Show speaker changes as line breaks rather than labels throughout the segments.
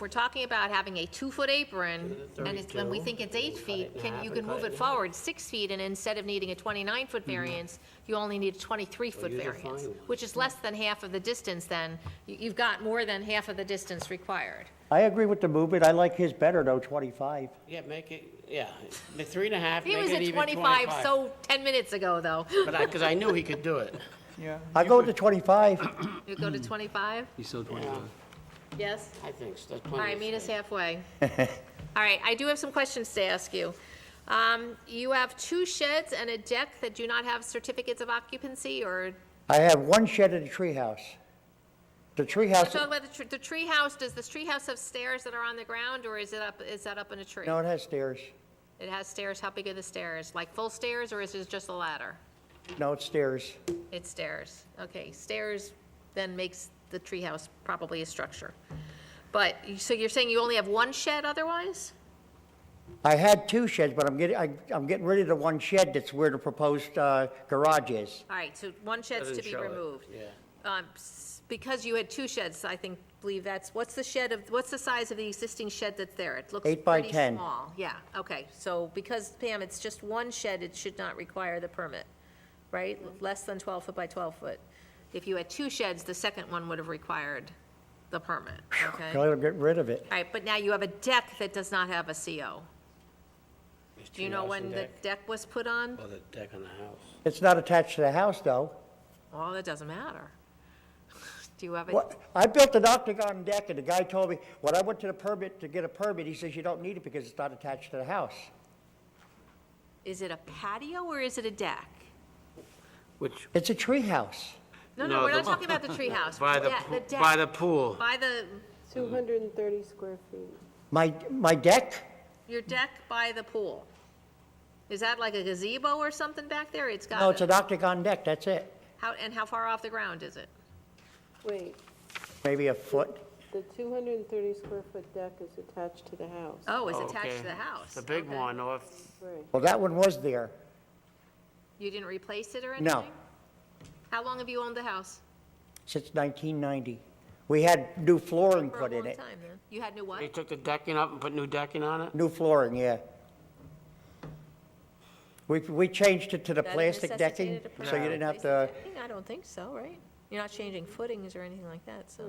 we're talking about having a two-foot apron, and it's, when we
32,
think it's eight
cut
feet,
it in
can,
half
you
and
can
cut
move
it
it
in
forward six feet, and instead of needing a 29-foot
Mm-hmm.
variance, you only need a 23-foot
use a
variance,
fine one.
which is less than half of the distance then, You- you've got more than half of the distance required.
I agree with the movement. I like his better though, 25.
Yeah, make it, yeah, the three and a half,
He
make
was
it
at
even
25, so 10 minutes ago, though.
But I, because I knew he could do it.
Yeah.
I'll go with the 25.
You go to 25?
He's still 25.
Yes?
I think so, that's
All
plenty.
right,
of
meet us
space.
halfway. All right, I do have some questions to ask you. Um, You have two sheds and a deck that do not have certificates of occupancy, or,
I have one shed in the treehouse. The
let's
treehouse,
talk about the tr- the tree house, does the tree house have stairs that are on the ground, or is it up, is that up in a tree?
no, it has stairs.
It has stairs, how big are the stairs? Like full stairs, or is it just a ladder?
No, it's stairs.
It's stairs. Okay, stairs then makes the tree house probably a structure. But, so you're saying you only have one shed otherwise?
I had two sheds, but I'm getting, I- I'm getting rid of the one shed that's where the proposed uh, garage is.
All right, so one shed's to
Doesn't
be
show it,
removed.
Yeah.
Um, s- Because you had two sheds, I think, believe that's, what's the shed of, what's the size of the existing shed that's there? It looks
Eight by
pretty
10.
small. Yeah, okay, so because Pam, it's just one shed, it should not require the permit, right? Less than 12 foot by 12 foot. If you had two sheds, the second one would have required the permit, okay?
I'll get rid of it.
All right, but now you have a deck that does not have a CO.
There's
Do you
two
know
house
when
and
the
deck.
deck was put on?
Or the deck on the house.
It's not attached to the house, though.
Well, that doesn't matter. Do you have a,
What, I built an octagon deck, and the guy told me, when I went to the permit, to get a permit, he says, you don't need it because it's not attached to the house.
is it a patio or is it a deck?
Which,
It's a treehouse.
No, no,
No,
we're not
the-
talking about the treehouse.
by the,
Yeah,
pool-
deck.
by the pool.
By the,
230 square feet.
My, my deck,
your deck by the pool. Is that like a gazebo or something back there? It's
no, it's
got,
an
a-
octagon deck, that's it.
how, and how far off the ground is it?
Wait,
Maybe a foot.
the 230 square foot deck is attached to the house.
Oh, it's
Oh,
attached to
okay.
the house.
The big
Okay.
one off,
Right.
Well, that one was there.
You didn't replace it or anything?
No.
How long have you owned the house?
since 1990. We had new flooring
For a
put in
long
it.
time, then. You had new what?
they took the decking up and put new decking on it?
New flooring, yeah. We, we changed it to the
That
plastic decking,
necessitated a
so you
permit
didn't have to,
replacement decking? I don't think so, right? You're not changing footings or anything like that, so.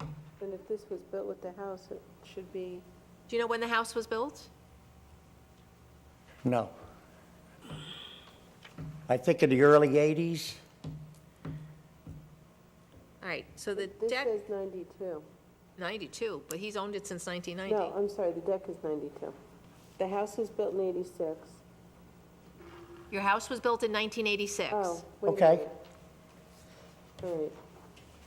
Right. And if this was built with the house, it should be,
Do you know when the house was built?
no. I think in the early 80s,
All right, so the
this
deck,
says 92.
92, but he's owned it since
No,
1990.
I'm sorry, the deck is 92. The house was built in 86.
Your house was built in 1986.
Oh, wait a
Okay.
minute. All right.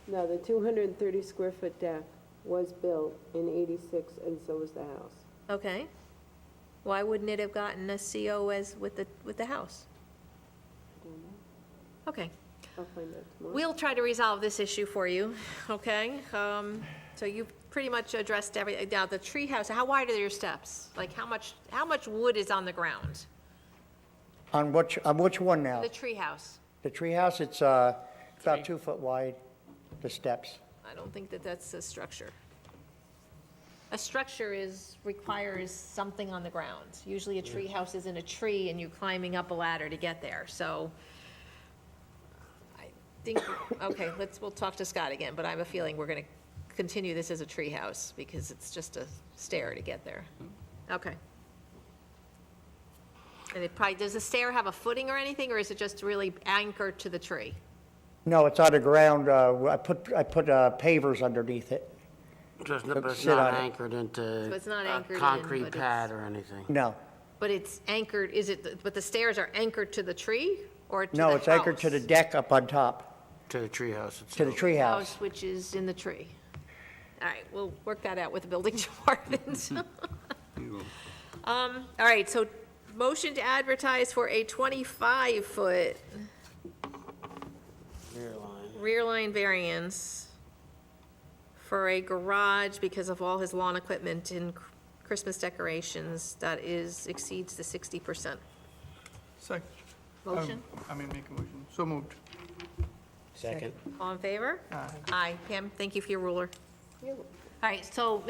No, the 230 square foot deck was built in 86, and so was the house.
Okay. Why wouldn't it have gotten a CO as with the, with the house? Okay,
I'll find out tomorrow.
we'll try to resolve this issue for you, okay? Um, So you pretty much addressed every, uh, now the treehouse, how wide are your steps? Like, how much, how much wood is on the ground?
on which, on which one now?
The treehouse?
The treehouse, it's uh, about two foot wide, the steps.
I don't think that that's a structure. A structure is, requires something on the ground. Usually a treehouse is in a tree and you're climbing up a ladder to get there, so I think, okay, let's, we'll talk to Scott again, but I have a feeling we're gonna continue this as a treehouse because it's just a stair to get there. Okay. And it probably, does the stair have a footing or anything, or is it just really anchored to the tree?
No, it's on the ground, uh, I put, I put uh, pavers underneath it.
Just, but it's
sit
not
on it.
anchored into.
So it's not
a
anchored in, but
Concrete
it's-
pad or anything.
No,
But it's anchored, is it, but the stairs are anchored to the tree or to the house?
no, it's anchored to the deck up on top,
To the treehouse
to the
itself.
treehouse.
House, which is in the tree. All right, we'll work that out with the building department. Um, all right, so motion to advertise for a 25-foot
Rear line.
rear line variance for a garage because of all his lawn equipment and Christmas decorations that is, exceeds the 60%.
Second.
Um,
Motion,
Um, I mean, make a motion. So moved.
Second.
all in favor? Aye. Pam, thank you for your ruler.
You-
All right, so